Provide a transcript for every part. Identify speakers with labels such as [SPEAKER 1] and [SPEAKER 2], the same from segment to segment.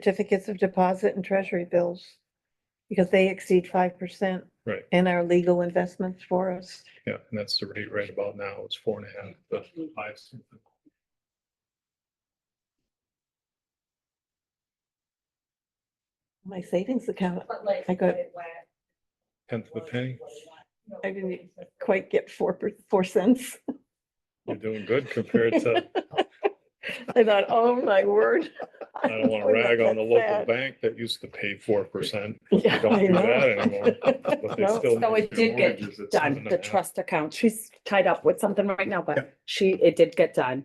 [SPEAKER 1] certificates of deposit and treasury bills because they exceed five percent.
[SPEAKER 2] Right.
[SPEAKER 1] And our legal investments for us.
[SPEAKER 2] Yeah, and that's the rate right about now, it's four and a half, but five.
[SPEAKER 1] My savings account,
[SPEAKER 3] But like.
[SPEAKER 1] I got-
[SPEAKER 3] what it was,
[SPEAKER 2] tenth of a
[SPEAKER 3] was,
[SPEAKER 2] penny.
[SPEAKER 3] was not, you know,
[SPEAKER 1] I didn't
[SPEAKER 3] what it was.
[SPEAKER 1] quite get four, per- four cents.
[SPEAKER 2] You're doing good compared to,
[SPEAKER 1] I thought, oh my word.
[SPEAKER 2] I don't want to rag on the local bank that used to pay four percent. They don't do that anymore. but they
[SPEAKER 1] No,
[SPEAKER 2] still
[SPEAKER 4] so
[SPEAKER 2] make
[SPEAKER 4] it
[SPEAKER 2] their
[SPEAKER 4] did get
[SPEAKER 2] mortgages at seven
[SPEAKER 4] done,
[SPEAKER 2] and a
[SPEAKER 4] the
[SPEAKER 2] half.
[SPEAKER 4] trust account. She's tied up with something right now, but she, it did get done.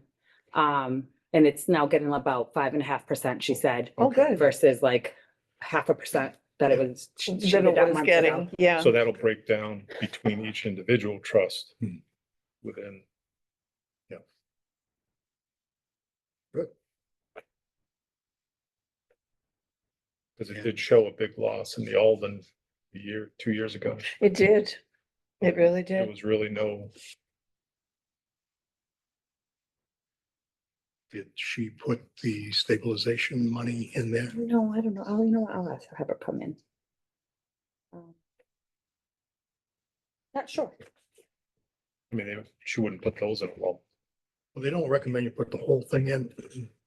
[SPEAKER 4] Um, and it's now getting about five and a half percent, she said,
[SPEAKER 1] Oh,
[SPEAKER 2] Okay.
[SPEAKER 1] good.
[SPEAKER 4] versus like half a percent that it was. she- she
[SPEAKER 1] That
[SPEAKER 4] did
[SPEAKER 1] it
[SPEAKER 4] that
[SPEAKER 1] was
[SPEAKER 4] months ago.
[SPEAKER 1] getting, yeah.
[SPEAKER 2] So that'll break down between each individual trust within. Yeah.
[SPEAKER 5] Good.
[SPEAKER 2] Because it did show a big loss in the Alden a year, two years ago.
[SPEAKER 1] It did. It really
[SPEAKER 2] There
[SPEAKER 1] did.
[SPEAKER 2] was really no,
[SPEAKER 5] Did she put the stabilization money in there?
[SPEAKER 4] No, I don't know. Oh, you know what? I'll ask- have her come in. Um, Not sure.
[SPEAKER 2] I mean, they- she wouldn't put those in a lump.
[SPEAKER 5] Well, they don't recommend you put the whole thing in.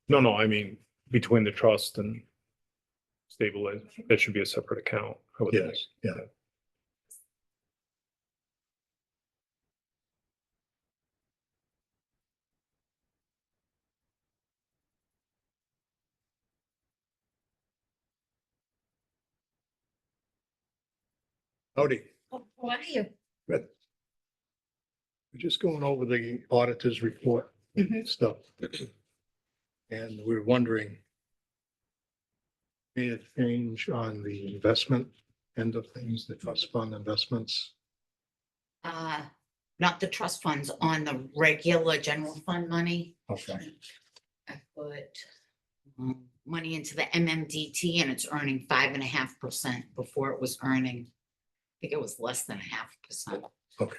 [SPEAKER 2] No, no, I mean, between the trust and stabilize, that should be a separate account. I would think.
[SPEAKER 5] Yes, yeah. Howdy,
[SPEAKER 3] Oh, How are you?
[SPEAKER 5] we're just going over the auditor's report
[SPEAKER 3] Mhm.
[SPEAKER 5] stuff. And we're wondering. Made a change on the investment end of things, the trust fund investments.
[SPEAKER 6] uh, not the trust funds, on the regular general fund money.
[SPEAKER 5] Okay.
[SPEAKER 6] I put um, money into the MMDT and it's earning five and a half percent before it was earning. I think it was less than a half percent.
[SPEAKER 5] Okay.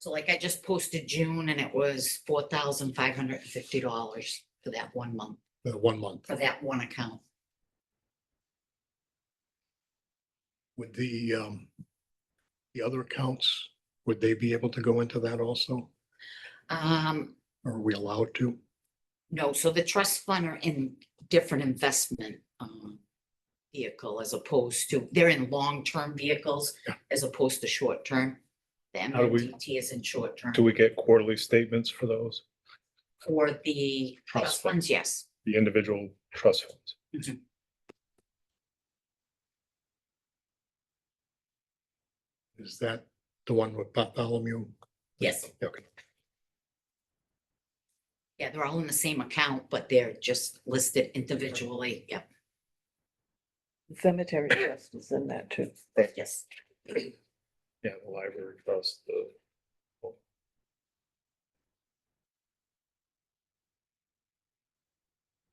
[SPEAKER 6] So like I just posted June and it was four thousand five hundred and fifty dollars for that one month,
[SPEAKER 5] Uh, one month.
[SPEAKER 6] for that one account.
[SPEAKER 5] Would the, um, the other accounts, would they be able to go into that also?
[SPEAKER 6] Um,
[SPEAKER 5] Or Are we allowed to?
[SPEAKER 6] No, so the trust fund are in different investment um, vehicle as opposed to, they're in long-term vehicles
[SPEAKER 5] Yeah.
[SPEAKER 6] as opposed to short-term. The
[SPEAKER 2] How do we-
[SPEAKER 6] MMDT is in short-term.
[SPEAKER 2] Do we get quarterly statements for those,
[SPEAKER 6] For the
[SPEAKER 2] Trust
[SPEAKER 6] trust
[SPEAKER 2] fund.
[SPEAKER 6] funds, yes.
[SPEAKER 2] the individual trust funds?
[SPEAKER 5] Is that the one with Bartholomew?
[SPEAKER 6] Yes.
[SPEAKER 5] Okay,
[SPEAKER 6] Yeah, they're all in the same account, but they're just listed individually. Yep,
[SPEAKER 1] Cemetery trust is in that too.
[SPEAKER 6] yes.
[SPEAKER 2] Yeah, the library trust, the.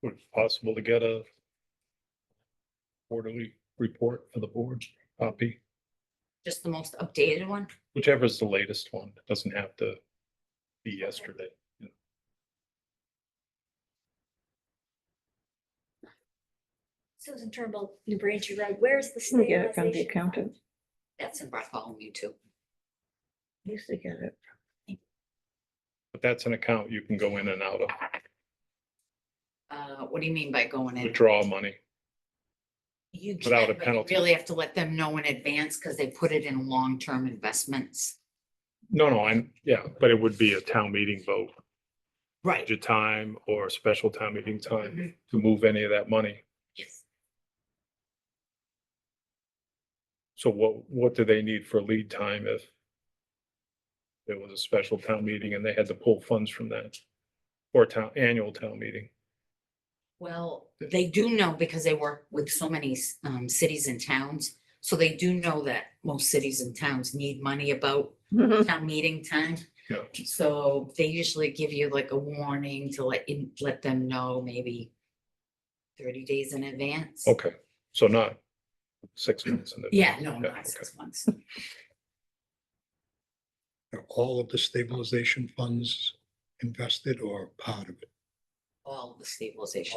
[SPEAKER 2] Would it be possible to get a quarterly report for the board copy,
[SPEAKER 6] Just the most updated one.
[SPEAKER 2] whichever is the latest one, It doesn't have to be yesterday.
[SPEAKER 3] Susan Turnbull, New Braintree Road, where's the
[SPEAKER 1] You get it from the
[SPEAKER 3] stabilization fund?
[SPEAKER 1] accountant.
[SPEAKER 6] That's in Bartholomew too.
[SPEAKER 1] Used to get it.
[SPEAKER 2] But that's an account you can go in and out of,
[SPEAKER 6] Uh, What do you mean by going in?
[SPEAKER 2] withdraw money.
[SPEAKER 6] You
[SPEAKER 2] without a
[SPEAKER 6] can, but you
[SPEAKER 2] penalty.
[SPEAKER 6] really have to let them know in advance because they put it in long-term investments.
[SPEAKER 2] No, no, I'm, yeah, but it would be a town meeting vote,
[SPEAKER 6] Right.
[SPEAKER 2] budget time or special town meeting time to move any of that money.
[SPEAKER 6] Yes.
[SPEAKER 2] So what, what do they need for lead time if there was a special town meeting and they had to pull funds from that? Or town, annual town meeting?
[SPEAKER 6] Well, they do know because they work with so many um cities and towns. So they do know that most cities and towns need money about town meeting time.
[SPEAKER 2] Yeah.
[SPEAKER 6] So they usually give you like a warning to let in, let them know maybe thirty days in advance.
[SPEAKER 2] Okay, so not six months in the,
[SPEAKER 6] Yeah, no,
[SPEAKER 2] Yeah,
[SPEAKER 6] not
[SPEAKER 2] okay.
[SPEAKER 6] six months.
[SPEAKER 5] are all of the stabilization funds invested or part of it?
[SPEAKER 6] all the stabilization.